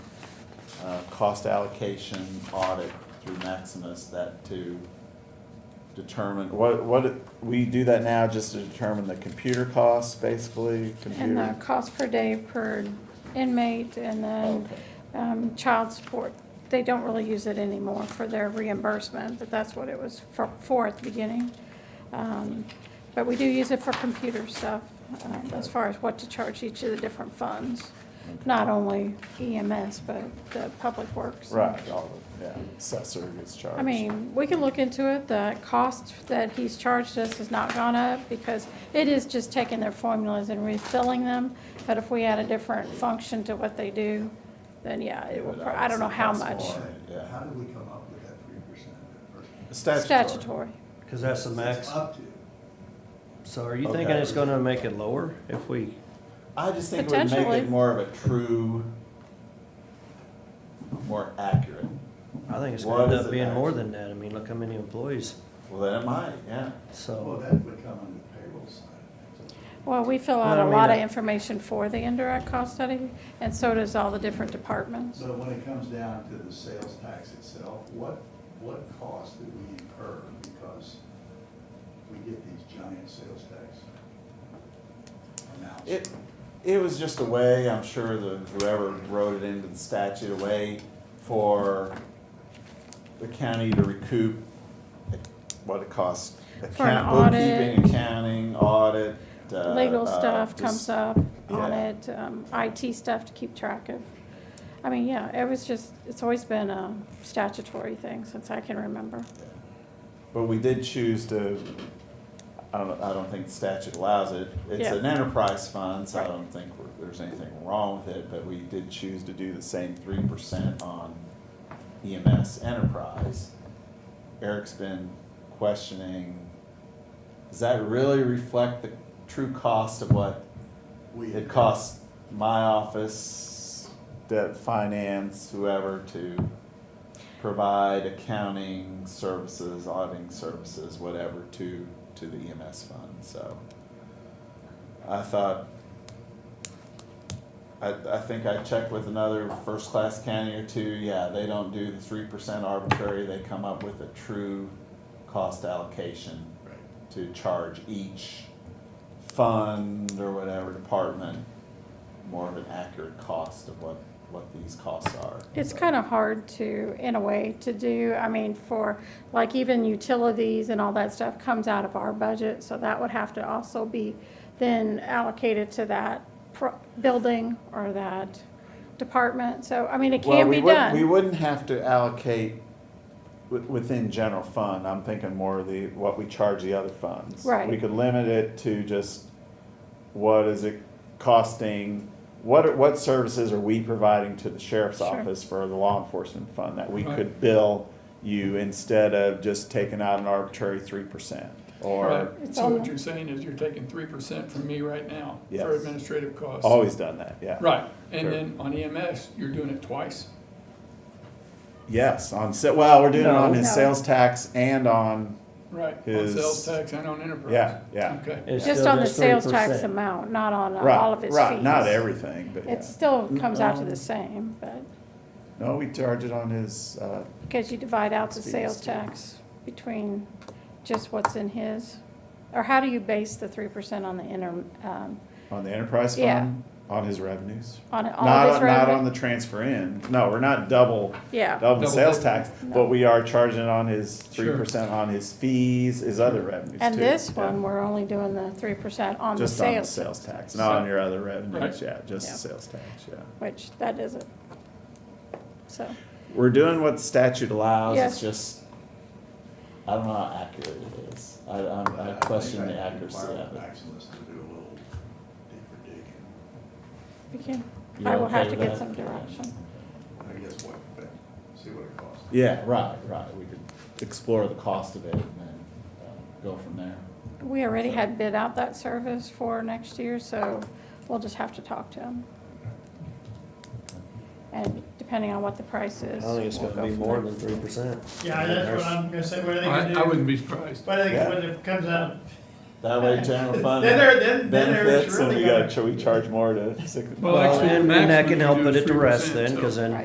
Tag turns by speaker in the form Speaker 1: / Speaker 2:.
Speaker 1: uh, cost allocation audit through Maximus that to determine, what, what, we do that now just to determine the computer costs, basically,
Speaker 2: And the
Speaker 1: computer.
Speaker 2: cost per day per inmate and then
Speaker 1: Okay.
Speaker 2: um, child support. They don't really use it anymore for their reimbursement, but that's what it was for, for at the beginning. Um, But we do use it for computer stuff, um, as far as what to charge each of the different funds. Not only EMS, but the public works.
Speaker 1: Right, all the, yeah, assessor gets charged.
Speaker 2: I mean, we can look into it. The cost that he's charged us has not gone up because it is just taking their formulas and refilling them. But if we add a different function to what they do, then yeah, it will, pro- I don't know how much.
Speaker 1: Cost more,
Speaker 3: How
Speaker 1: Yeah.
Speaker 3: did we come up with that three percent?
Speaker 2: Statutory.
Speaker 4: Because that's the max.
Speaker 3: Up to.
Speaker 4: So are you
Speaker 1: Okay.
Speaker 4: thinking it's gonna make it lower if we,
Speaker 1: I just think it would make
Speaker 2: Potentially.
Speaker 1: it more of a true, more accurate.
Speaker 4: I think it's
Speaker 1: What
Speaker 4: gonna end
Speaker 1: is it
Speaker 4: up being more
Speaker 1: actually?
Speaker 4: than that. I mean, look how many employees,
Speaker 1: Well, then it might, yeah.
Speaker 3: Well,
Speaker 4: so.
Speaker 3: that would come on the payroll side. of things.
Speaker 2: Well, we fill out
Speaker 4: Well, I
Speaker 2: a
Speaker 4: mean,
Speaker 2: lot of
Speaker 4: it-
Speaker 2: information for the indirect cost study, and so does all the different departments.
Speaker 3: So when it comes down to the sales tax itself, what, what cost did we incur because we get these giant sales tax amounts?
Speaker 1: It, it was just a way, I'm sure the, whoever wrote it into the statute, a way for the county to recoup what it costs.
Speaker 2: For an
Speaker 1: Account-
Speaker 2: audit.
Speaker 1: Bookkeeping, accounting, audit, uh.
Speaker 2: Legal
Speaker 1: uh,
Speaker 2: stuff
Speaker 1: just-
Speaker 2: comes up on
Speaker 1: yeah.
Speaker 2: it, um, IT stuff to keep track of. I mean, yeah, it was just, it's always been a statutory thing since I can remember.
Speaker 1: But we did choose to, I don't, I don't think the statute allows it. It's
Speaker 2: Yeah.
Speaker 1: an enterprise fund, so I don't think we're- there's anything wrong with it, but we did choose to do the same three percent on EMS enterprise. Eric's been questioning, does that really reflect the true cost of what
Speaker 3: We-
Speaker 1: it costs my office, debt finance, whoever to provide accounting services, auditing services, whatever to, to the EMS fund, so. I thought, I, I think I checked with another first-class county or two, yeah, they don't do the three percent arbitrary, they come up with a true cost allocation
Speaker 3: Right.
Speaker 1: to charge each fund or whatever department more of an accurate cost of what, what these costs are.
Speaker 2: It's
Speaker 1: So,
Speaker 2: kind of hard to, in a way, to do, I mean, for, like, even utilities and all that stuff comes out of our budget, so that would have to also be then allocated to that pro- building or that department, so, I mean, it
Speaker 1: Well,
Speaker 2: can
Speaker 1: we
Speaker 2: be
Speaker 1: wouldn't, we
Speaker 2: done.
Speaker 1: wouldn't have to allocate wi- within general fund, I'm thinking more of the, what we charge the other funds.
Speaker 2: Right.
Speaker 1: We could limit it to just what is it costing, what, are- what services are we providing to the sheriff's
Speaker 2: Sure.
Speaker 1: office for the law enforcement fund that we
Speaker 5: Right.
Speaker 1: could bill you instead of just taking out an arbitrary three percent? Or,
Speaker 2: It's
Speaker 5: Right, so
Speaker 2: all-
Speaker 5: what you're saying is you're taking three percent from me right now
Speaker 1: Yes.
Speaker 5: for administrative costs.
Speaker 1: always done that, yeah.
Speaker 5: Right,
Speaker 1: Sure.
Speaker 5: and then on EMS, you're doing it twice.
Speaker 1: Yes, on, sa- well, we're doing it on
Speaker 5: No.
Speaker 1: his
Speaker 2: No.
Speaker 1: sales tax and on,
Speaker 5: Right, on
Speaker 1: Is-
Speaker 5: sales tax and on enterprise.
Speaker 1: Yeah, yeah.
Speaker 5: Okay,
Speaker 4: it's
Speaker 2: Just
Speaker 4: still
Speaker 2: on the sales tax
Speaker 4: 3%.
Speaker 2: amount, not on uh, all of
Speaker 1: right,
Speaker 2: its fees.
Speaker 1: right, not everything, but yeah. Um,
Speaker 2: It still comes out to the same, but,
Speaker 1: No, we charge it on his, uh,
Speaker 2: because you divide out the
Speaker 1: Fees,
Speaker 2: sales
Speaker 1: yeah.
Speaker 2: tax between just what's in his, or how do you base the three percent on the inter, um,
Speaker 1: on the enterprise
Speaker 2: Yeah.
Speaker 1: fund, on his revenues.
Speaker 2: On all
Speaker 1: Not,
Speaker 2: of his
Speaker 1: on- not
Speaker 2: revenue?
Speaker 1: on the transfer in, no, we're not double,
Speaker 2: Yeah,
Speaker 1: double the
Speaker 5: Double
Speaker 1: sales
Speaker 5: dipping.
Speaker 1: tax,
Speaker 2: No.
Speaker 1: but we are charging it on his three
Speaker 5: Sure.
Speaker 1: percent on his fees, his other revenues too.
Speaker 2: and this
Speaker 1: Yeah.
Speaker 2: one, we're only doing the three percent on the
Speaker 1: Just on the
Speaker 2: sales,
Speaker 1: sales tax, not on your other revenues,
Speaker 5: Right.
Speaker 1: yeah, just
Speaker 2: Yeah.
Speaker 1: the sales tax, yeah.
Speaker 2: which that isn't. So,
Speaker 1: We're doing what the statute allows,
Speaker 2: Yes.
Speaker 1: it's just, I don't know how accurate it is. I, I, I question the
Speaker 3: think I can
Speaker 1: accuracy
Speaker 3: require
Speaker 1: of it.
Speaker 3: Maximus to do a little deeper digging.
Speaker 2: we can,
Speaker 1: You
Speaker 2: I will
Speaker 1: okay
Speaker 2: have to
Speaker 1: with
Speaker 2: get
Speaker 1: that?
Speaker 2: some direction.
Speaker 3: I guess what, but see what it costs.
Speaker 1: Yeah, right, right, we could explore the cost of it and then uh, go from there.
Speaker 2: We already had bid out that service for next year, so we'll just have to talk to them. And depending on what the price
Speaker 4: I
Speaker 2: is.
Speaker 4: don't think it's
Speaker 2: we'll
Speaker 4: gonna be
Speaker 2: go from
Speaker 4: more
Speaker 2: there.
Speaker 4: than three percent.
Speaker 6: Yeah, that's what I'm gonna say, what are they
Speaker 5: I,
Speaker 6: gonna
Speaker 5: I wouldn't
Speaker 6: do?
Speaker 5: be surprised.
Speaker 6: What are they, when it comes out,
Speaker 1: That way general fund
Speaker 6: Then there- then- then there's
Speaker 1: benefits and
Speaker 6: really
Speaker 1: we gotta,
Speaker 6: gonna-
Speaker 1: ch- we charge more to sick.
Speaker 5: Well, actually,
Speaker 4: And and that
Speaker 5: maximum
Speaker 4: can
Speaker 5: you
Speaker 4: help
Speaker 5: do
Speaker 4: it
Speaker 5: is
Speaker 4: at the rest
Speaker 5: 3%,
Speaker 4: then, cause
Speaker 5: so-
Speaker 4: then